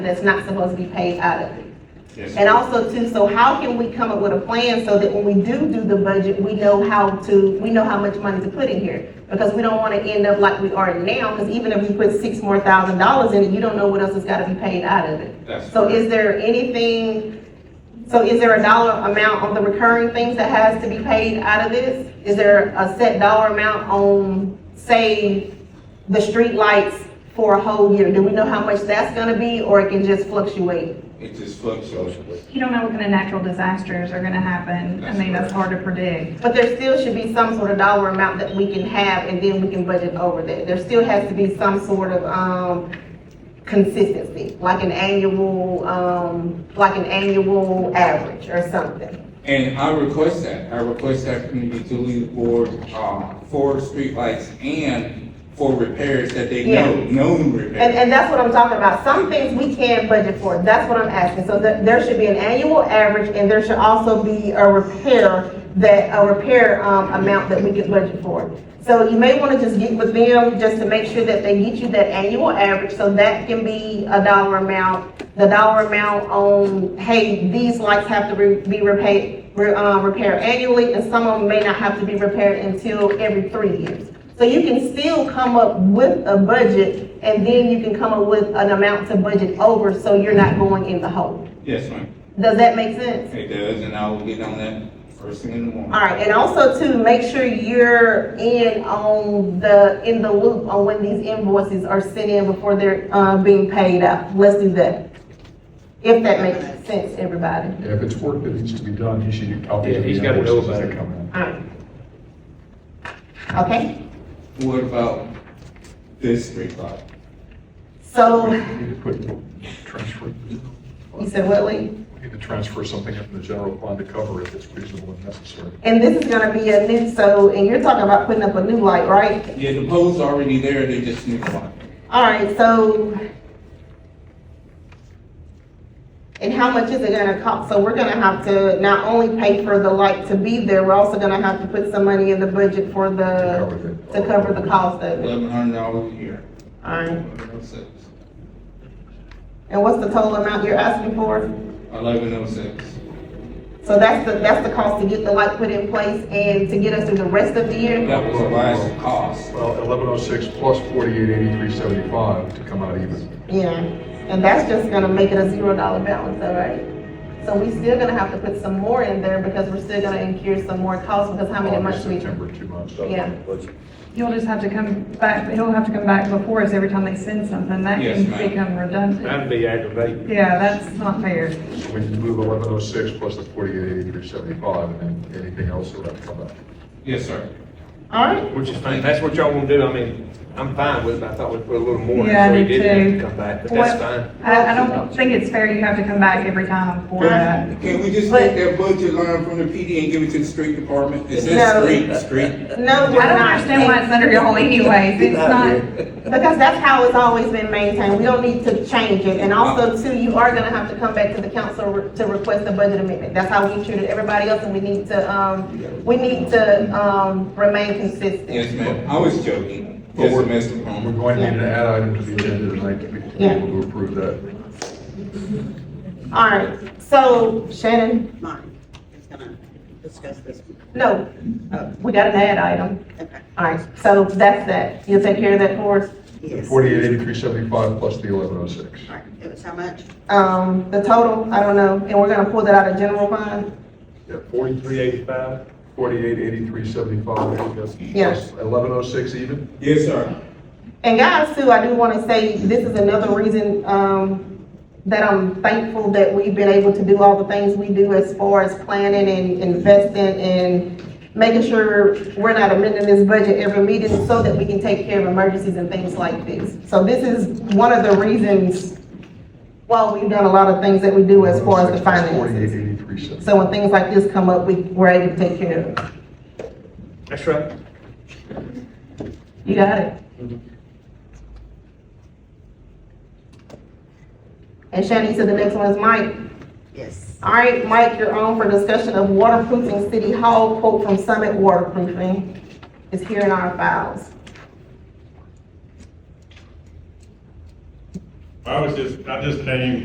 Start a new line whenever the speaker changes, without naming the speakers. that's not supposed to be paid out of it.
Yes.
And also too, so how can we come up with a plan so that when we do do the budget, we know how to, we know how much money to put in here? Because we don't wanna end up like we are now, because even if you put six more thousand dollars in it, you don't know what else has gotta be paid out of it.
That's
So is there anything, so is there a dollar amount on the recurring things that has to be paid out of this? Is there a set dollar amount on, say, the street lights for a whole year? Do we know how much that's gonna be, or it can just fluctuate?
It just fluctuates.
You don't know what kind of natural disasters are gonna happen. I mean, that's hard to predict.
But there still should be some sort of dollar amount that we can have, and then we can budget over that. There still has to be some sort of, um, consistency, like an annual, um, like an annual average or something.
And I request that, I request that from the utility board, uh, for streetlights and for repairs that they know,
Yeah.
known
And,
repairs.
and that's what I'm talking about. Some things we can budget for. That's what I'm asking. So there, there should be an annual average and there should also be a repair that, a repair, um, amount that we can budget for. So you may want to just get with them just to make sure that they get you that annual average. So that can be a dollar amount. The dollar amount on, hey, these lights have to re- be repaid, re- uh, repaired annually and some of them may not have to be repaired until every three years. So you can still come up with a budget, and then you can come up with an amount to budget over, so you're not going in the hole.
Yes, ma'am,
Does that make sense?
it does, and I will get on that first thing in the morning.
All right, and also to make sure you're in on the, in the loop on when these invoices are sent in before they're, uh, being paid out. Let's do that. If that makes sense, everybody.
Yeah, if it's work that needs to be done, he should get copies
Yeah,
of the
he's gotta know
invoices
about
that
it.
come in.
All right. Okay?
What about this streetlight?
We
So,
need to put, transfer, we
you said what, Lee?
need to transfer something from the general fund to cover it that's reasonable and necessary.
And this is gonna be a new, so, and you're talking about putting up a new light, right?
Yeah, the pole's already there, they just need a light.
All right, so. And how much is it gonna cost? So we're gonna have to not only pay for the light to be there, we're also gonna have to put some money in the budget for the,
cover the-
to cover the cost of it.
Eleven hundred dollars a year.
All right,
Eleven oh six.
and what's the total amount you're asking for?
Eleven oh six.
So that's the, that's the cost to get the light put in place and to get us through the rest of the year?
That was the last cost.
Well, eleven oh six plus forty-eight eighty-three seventy-five to come out even.
Yeah, and that's just gonna make it a zero dollar balance, all right? So we still gonna have to put some more in there because we're still gonna incur some more costs because how many months
August,
we
September, two months.
Yeah.
You'll just have to come back, he'll have to come back before us every time they send something. That
Yes,
can
ma'am.
become redundant.
That'd be aggravating.
Yeah, that's not fair.
So we need to move eleven oh six plus the forty-eight eighty-three seventy-five and then anything else that would come out.
Yes, sir.
All right,
Which is fine, that's what y'all wanna do, I mean, I'm fine with it, I thought we'd put a little more. in
Yeah, I
so he
do
didn't have
too.
to Come back, but that's
What-
fine.
I, I don't think it's fair you have to come back every time for that.
Can we just take that budget line from the PD and give it to the street department? Is
No.
that street, street?
no,
I
we're
don't
not.
understand why it's under y'all anyways. It's not,
Because that's how it's always been maintained, we don't need to change it, and also too, you are gonna have to come back to the council re- to request a budget amendment, that's how we treated everybody else, and we need to, um, we need to, um, remain
Yes,
consistent.
ma'am, I was joking.
But
Yes,
we're-
Mr.
We're
Palmer.
going to need an add item to the agenda tonight to be be
Yeah.
able to approve that.
All right, so Shannon,
Mine is gonna discuss this. one.
no, uh, we got an ad item,
Okay.
all right, so that's that, you'll take care of that for us?
Yes.
Forty-eight eighty-three seventy-five plus the eleven oh six.
All right, it was how much?
Um, the total, I don't know, and we're gonna pull that out of general fund,
Yeah, forty-three,
Three eighty-five?
forty-eight eighty-three seventy-five.
Yeah.
Eleven oh six even?
Yes, sir.
And guys, too, I do want to say, this is another reason, um, that I'm thankful that we've been able to do all the things we do as far as planning and investing and making sure we're not amending this budget every meeting so that we can take care of emergencies and things like this. So this is one of the reasons why we've done a lot of things that we do as far as the
oh Forty-eight
finances.
eighty-three seventy.
So when things like this come up, we, we're able to take care of it.
That's right.
You got it? And Shannon, you said the next one is Mike.
Yes.
All right, Mike, you're on for discussion of waterproofing City Hall quote from Summit Waterproofing. It's here in our files.
I was just, I just came